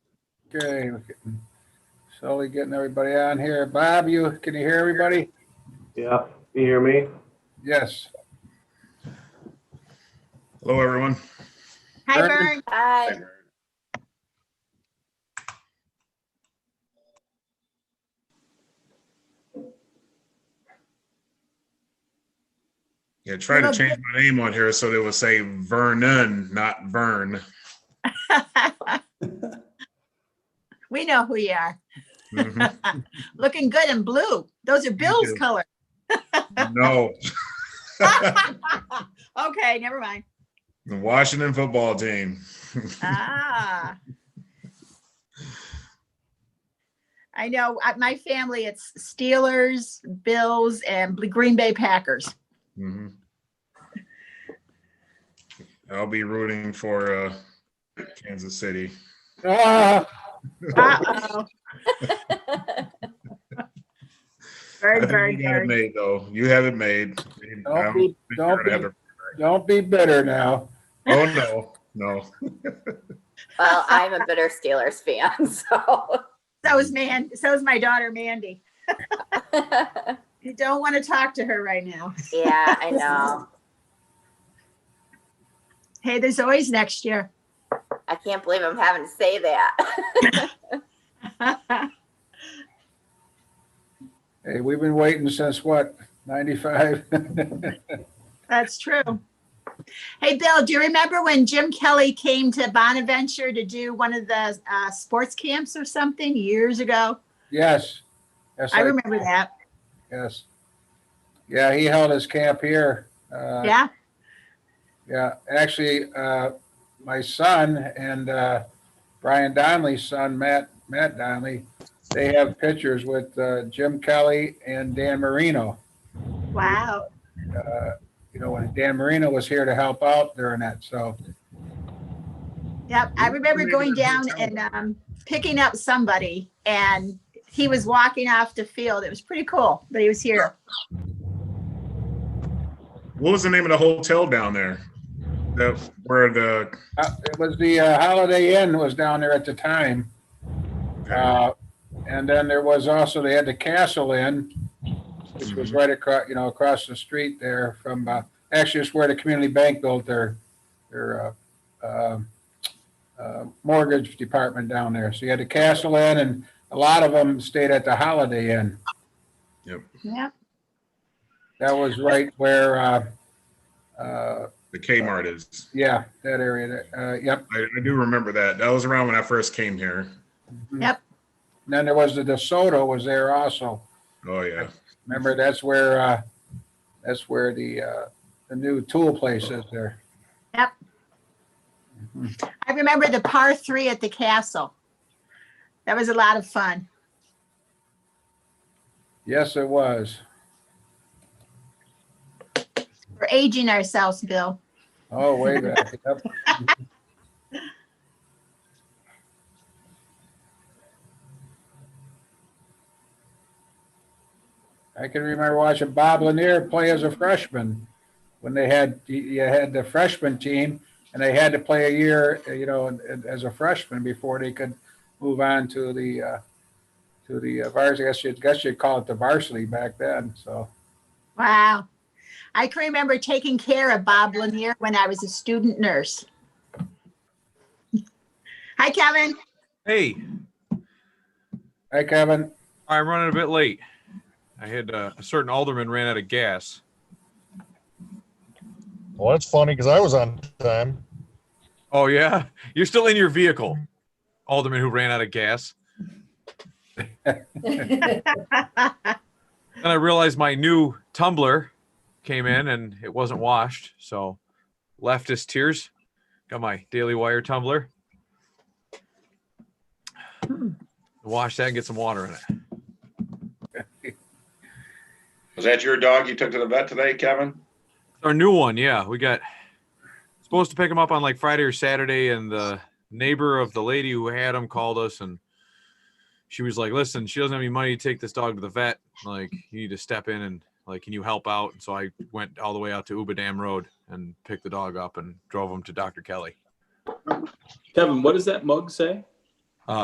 Okay, we're getting- slowly getting everybody on here. Bob, you, can you hear everybody? Yeah, you hear me? Yes. Hello, everyone. Hi, Burn. Vern. Hi. Yeah, try to change my name on here so they will say Vernon, not Vern. We know who you are. Mhm. Looking good in blue. Those are Bill's you. colors. No, Okay, never mind. the Washington football team. Ah. I know, at my family, it's Steelers, Bills, and Bl- Green Bay Packers. Mhm. I'll be rooting for uh, Kansas City. Ah, Oh. Uh-oh. I Bird, think bird, You got it bird. made, though. You have it made. I Don't don't be, think you're don't gonna be, have it- don't be bitter now. Oh, no, no. Well, I'm a bitter Steelers fan, so. So is man, so is my daughter Mandy. You don't want to talk to her right now. Yeah, I know. Hey, there's always next year. I can't believe I'm having to say that. Hey, we've been waiting since what, 95? That's true. Hey, Bill, do you remember when Jim Kelly came to Bonaventure to do one of the uh, sports camps or something years ago? Yes. Yes, I remember that. Yes. Yeah, he held his camp here. Uh, Yeah. Yeah, actually, uh, my son and, uh, Brian Donnelly's son, Matt, Matt Donnelly, they have pictures with, uh, Jim Kelly and Dan Marino. Wow. Uh, you know, when Dan Marino was here to help out during that, so, Yep. I remember going down and um, picking up somebody and he was walking off the field. It was pretty cool, but he was here. What was the name of the hotel down there? The, where the, uh, it was the, uh, Holiday Inn was down there at the time. Uh, and then there was also, they had the Castle Inn, which was right across, you know, across the street there from, uh, actually it's where the community bank built their, their, uh, uh, uh, mortgage department down there. So you had the Castle Inn and a lot of them stayed at the Holiday Inn. Yeah. That was right where, uh, uh, the Kmart is. yeah, that area, there. uh, yep. I, I do remember that. That was around when I first came here. Yep. And Then there was the DeSoto was there also. Oh, yeah. Remember, that's where, uh, that's where the, uh, the new tool place is there. I remember the par three at the castle. That was a lot of fun. Yes, it was. We're aging ourselves, Bill. Oh, way back. Yep. I can remember watching Bob Lanier play as a freshman when they had, you had the freshman team and they had to play a year, you know, as a freshman before they could move on to the, uh, to the uh, varsity. I guess you'd, guess you'd call it the varsity back then. So, Wow. I can remember taking care of Bob Lanier when I was a student nurse. Hi, Kevin. Hey, hi, Kevin. I'm running a bit late. I had uh, a certain alderman ran out of gas. Well, that's funny because I was on time. Oh yeah, you're still in your vehicle, alderman who ran out of gas. Then I realized my new tumbler came in and it wasn't washed, so leftist tears. Got my Daily Wire tumbler. Wash that and get some water in it. Was that your dog you took to the vet today, Kevin? Our new one, yeah. We got supposed to pick him up on like Friday or Saturday, and the neighbor of the lady who had him called us, and she was like, "Listen, she doesn't have any money to take this dog to the vet. Like, you need to step in and like, can you help out?" And so I went all the way out to Uba Dam Road and picked the dog up and drove him to Dr. Kelly. Kevin, what does that mug say?